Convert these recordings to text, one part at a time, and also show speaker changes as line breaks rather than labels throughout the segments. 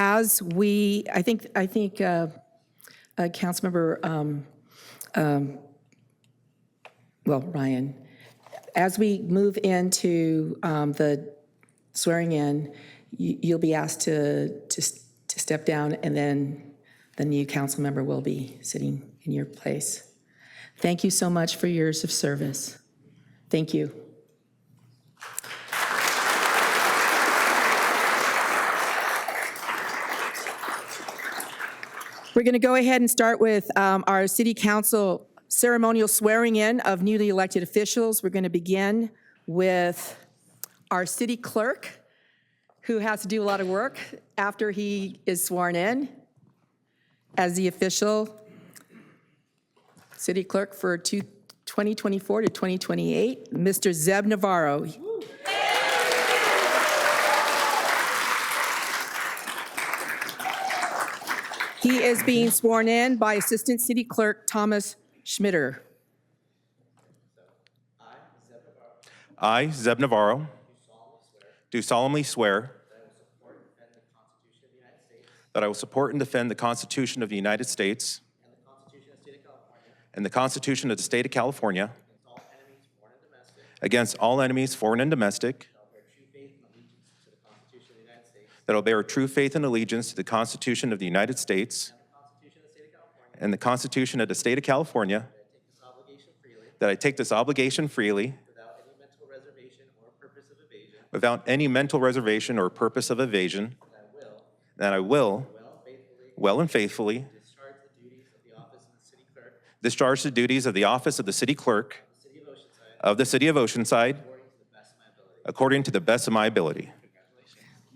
because we, I think, I think uh, uh, Councilmember, um, um, well, Ryan, as we move into um, the swearing in, you- you'll be asked to, to s- to step down, and then the new council member will be sitting in your place. Thank you so much for years of service. Thank you. We're going to go ahead and start with um, our city council ceremonial swearing-in of newly elected officials. We're going to begin with our city clerk, who has to do a lot of work after he is sworn in as the official city clerk for two- 2024 to 2028, Mr. Zeb Navarro. He is being sworn in by Assistant City Clerk Thomas Schmitter.
I, Zeb Navarro. Do solemnly swear. That I will support and defend the Constitution of the United States. And the Constitution of the State of California. Against all enemies, foreign and domestic. That I will bear true faith and allegiance to the Constitution of the United States. And the Constitution of the State of California. That I take this obligation freely.
without any mental reservation or purpose of evasion,
without any mental reservation or purpose of evasion, that I will,
well faithfully
well and faithfully,
discharge the duties of the office of the city clerk of
discharge the duties of the
the city of
office of the city clerk
Oceanside
of the city of Oceanside
according to the best of my ability.
according to the best of my ability.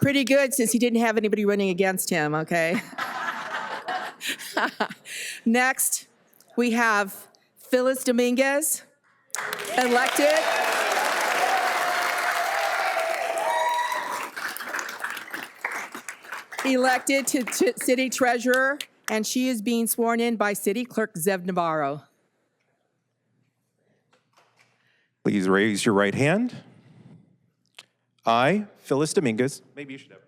Pretty good, since he didn't have anybody running against him, okay? Next, we have Phyllis Dominguez, elected. Elected to t- city treasurer, and she is being sworn in by City Clerk Zev Navarro.
Please raise your right hand. I, Phyllis Dominguez. Maybe you should have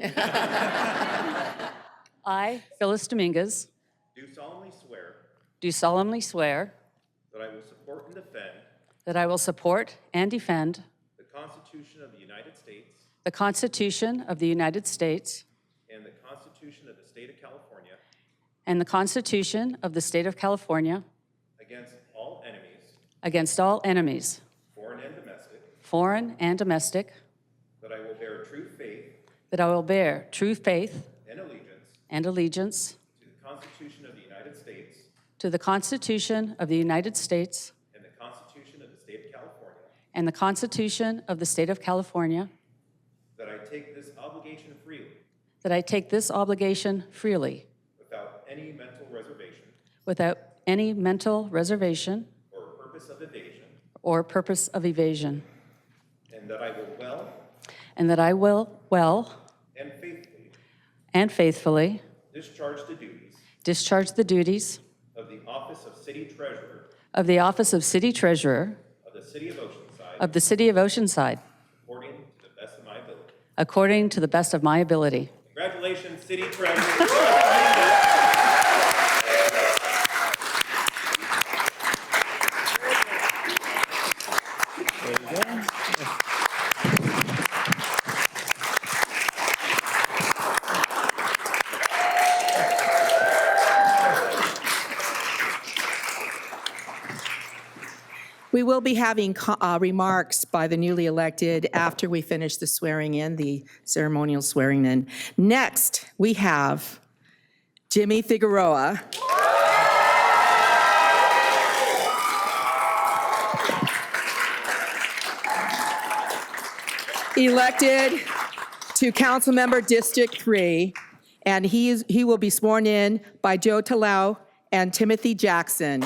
it, Mike.
I, Phyllis Dominguez,
Do solemnly swear
do solemnly swear
that I will support and defend
that I will support and defend
the Constitution of the United States
the Constitution of the United States
and the Constitution of the State of California
and the Constitution of the State of California
against all enemies,
against all enemies,
foreign and domestic,
foreign and domestic,
that I will bear true faith
that I will bear true faith
and allegiance
and allegiance
To the Constitution of the United States
to the Constitution of the United States
and the Constitution of the State of California.
and the Constitution of the State of California,
That I take this obligation freely,
that I take this obligation freely
without any mental reservation
without any mental reservation
or purpose of evasion,
or purpose of evasion.
and that I will well
And that I will well
and faithfully
and faithfully
discharge the duties
discharge the duties
of the Office of City Treasurer
of the Office of City Treasurer
of the City of Oceanside
of the City of Oceanside
according to the best of my ability.
according to the best of my ability.
Congratulations, City Treasurer.
We will be having co- uh, remarks by the newly elected after we finish the swearing in, the ceremonial swearing in. Next, we have Jimmy Figueroa. Elected to Councilmember District 3, and he is, he will be sworn in by Joe Talau and Timothy Jackson.